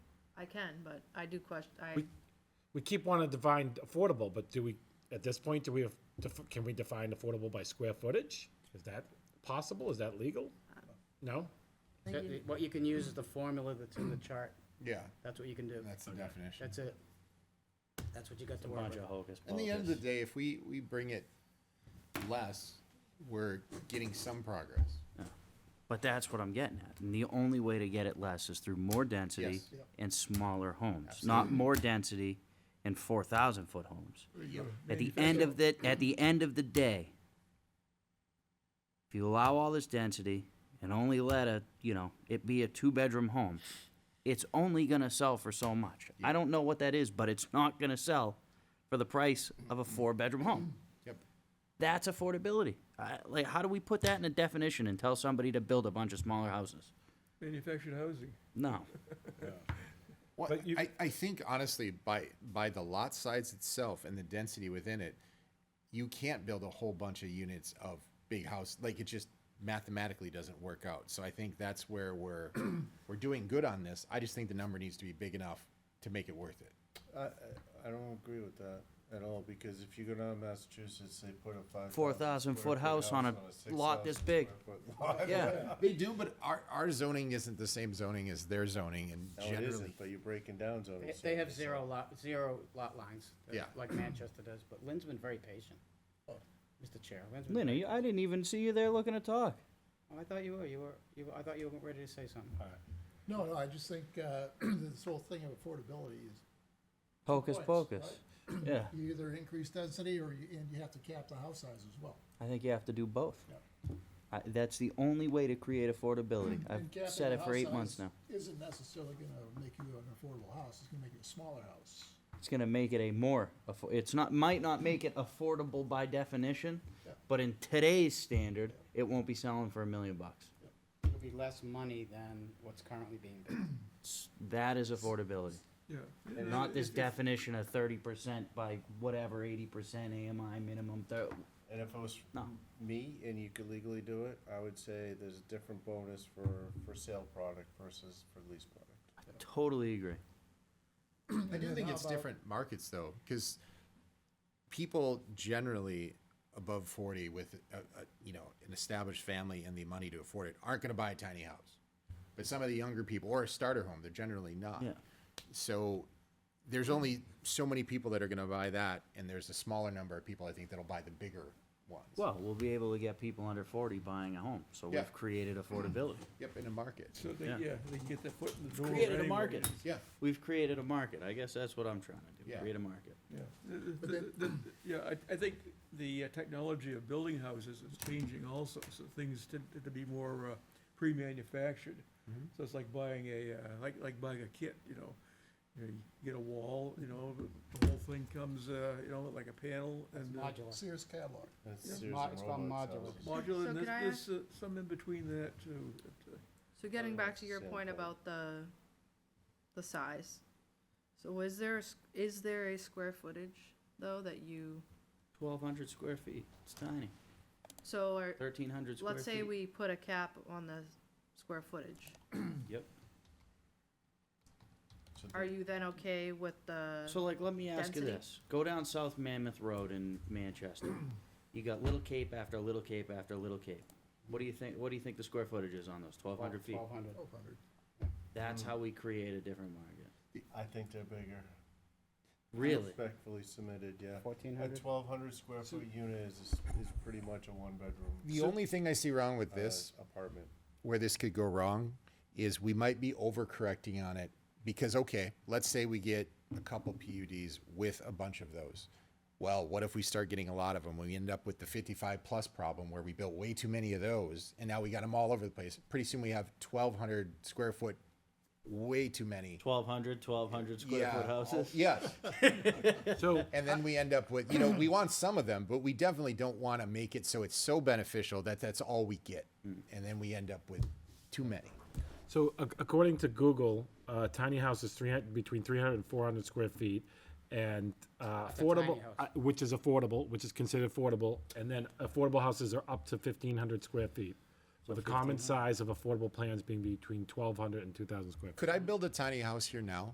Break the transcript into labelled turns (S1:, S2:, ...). S1: I can, but I do question, I,
S2: We- We keep wanting to define affordable, but do we, at this point, do we have, def- can we define affordable by square footage? Is that possible? Is that legal? No?
S3: That- that- What you can use is the formula that's in the chart.
S4: Yeah,
S3: That's what you can do.
S4: that's the definition.
S3: That's it. That's what you got to work
S5: bunch
S3: with.
S5: of hocus
S4: At the end of the
S5: pocus.
S4: day, if we, we bring it less, we're getting some progress.
S5: But that's what I'm getting at. And the only way to get it less is through more density
S4: Yes.
S5: and smaller homes, not more density and four thousand foot homes. At the end of the, at the end of the day, if you allow all this density and only let a, you know, it be a two-bedroom home, it's only gonna sell for so much. I don't know what that is, but it's not gonna sell for the price of a four-bedroom home.
S4: Yep.
S5: That's affordability. I, like, how do we put that in a definition and tell somebody to build a bunch of smaller houses?
S6: Manufactured housing.
S5: No.
S4: Well,
S2: But you-
S4: I, I think honestly, by, by the lot size itself and the density within it, you can't build a whole bunch of units of big house, like it just mathematically doesn't work out. So I think that's where we're, we're doing good on this. I just think the number needs to be big enough to make it worth it.
S7: I, I- I don't agree with that at all, because if you go down to Massachusetts, they put a five.
S5: 4,000 foot house on a lot this big. Yeah.
S4: They do, but our, our zoning isn't the same zoning as their zoning and
S7: No, it
S4: generally.
S7: isn't, but you're breaking down zoning.
S3: They- They have
S7: standards.
S3: zero lot, zero lot lines. uh,
S4: Yeah.
S3: Like Manchester does, but Lynn's been very patient. Mr. Chair, Lynn's been.
S5: Lynn, are you- I didn't even see you there looking to talk.
S3: Oh, I thought you were, you were, you, were- I thought you were ready to say something.
S8: No, no, I just think uh, this whole thing of affordability is,
S5: Hocus
S8: Points,
S5: pocus. Yeah,
S8: you either increase density or you, and you have to cap the house size as well.
S5: I think you have to do both.
S8: Yeah.
S5: I, that's the only way to create affordability.
S8: And
S5: I've
S8: capping
S5: said
S8: the
S5: it for
S8: house
S5: eight months
S8: size
S5: now.
S8: Isn't necessarily gonna make you an affordable house, it's gonna make you a smaller house.
S5: It's gonna make it a more, affo- it's not, might not make it affordable by definition,
S8: Yeah.
S5: but in today's standard, it won't be selling for a million bucks.
S3: It'll be less money than what's currently being built.
S5: S- That is affordability.
S6: Yeah.
S5: Not this definition of thirty percent by whatever eighty percent AMI minimum. Thir-
S7: And if it was
S5: No.
S7: me and you could legally do it, I would say there's a different bonus for, for sale product versus for lease product.
S5: totally agree.
S4: I do think it's different markets though, because people generally above forty with a, a, you know an established family and the money to afford it aren't going to buy a tiny house, but some of the younger people or a starter home, they're generally not.
S5: Yeah.
S4: So there's only so many people that are going to buy that, and there's a smaller number of people I think that'll buy the bigger ones.
S5: Well, we'll be able to get people under forty buying a home, so
S4: Yeah.
S5: we've created affordability.
S4: yep, in a market.
S6: So they,
S5: Yeah.
S6: yeah, they can get their foot in the door.
S5: Created a
S6: anywhere.
S5: market.
S4: Yeah.
S5: We've created a market. I guess that's what I'm trying to do.
S4: Yeah.
S5: Create a market.
S6: Yeah, The- the- the- the- yeah, I, I think the uh, technology of building houses is changing also, so things tend to be more uh, pre-manufactured. So it's like buying a, uh, like, like buying a kit, you know, you know, you get a wall, you know, the- the whole thing comes, uh, you know, like a panel
S3: It's
S6: and. uh,
S3: modular.
S8: Sears catalog.
S7: That's
S6: Yeah.
S7: Sears
S3: Mo-
S7: and
S3: it's called
S7: Roebuck's
S3: modular.
S7: houses.
S6: Modular,
S1: So
S6: and
S1: can
S6: there's,
S1: I
S6: there's uh, some in between that too. that, uh,
S1: so getting back to your
S7: Yeah,
S1: point
S7: but-
S1: about the, the size. So is there, a s- is there a square footage, though, that you,
S5: Twelve hundred square feet. It's tiny.
S1: so are,
S5: Thirteen hundred square
S1: let's
S5: feet.
S1: say we put a cap on the square footage.
S5: Yep.
S7: So
S1: Are you then okay with the?
S5: So like, let me ask you
S1: density.
S5: this. Go down South Mammoth Road in Manchester. You got Little Cape after Little Cape after Little Cape. What do you think, what do you think the square footage is on those? Twelve hundred feet?
S3: Twelve hundred.
S8: Twelve hundred.
S5: That's how we create a different market.
S7: I think they're bigger.
S5: Really?
S7: Respectfully submitted, yeah.
S3: 1400?
S7: A twelve hundred square foot unit is, is pretty much a one bedroom.
S4: The only thing I see wrong with this
S7: Apartment.
S4: where this could go wrong is we might be overcorrecting on it because okay, let's say we get a couple PUDs with a bunch of those. Well, what if we start getting a lot of them? We end up with the 55 plus problem where we built way too many of those and now we got them all over the place. Pretty soon we have 1200 square foot way too many.
S5: Twelve hundred, twelve hundred square foot houses?
S4: Yes.
S2: So,
S4: And then we end up with, you know, we want some of them, but we definitely don't want to make it so it's so beneficial that that's all we get.
S5: Mm.
S4: And then we end up with too many.
S2: so ac- according to Google, uh, tiny house is three hundred, between three hundred and four hundred square feet. And, uh,
S3: a tiny
S2: affordable,
S3: house.
S2: uh, which is affordable, which is considered affordable, and then affordable houses are up to fifteen hundred square feet. With a common size of affordable plans being between 1,200 and 2,000 square feet.
S4: Could I build a tiny house here now?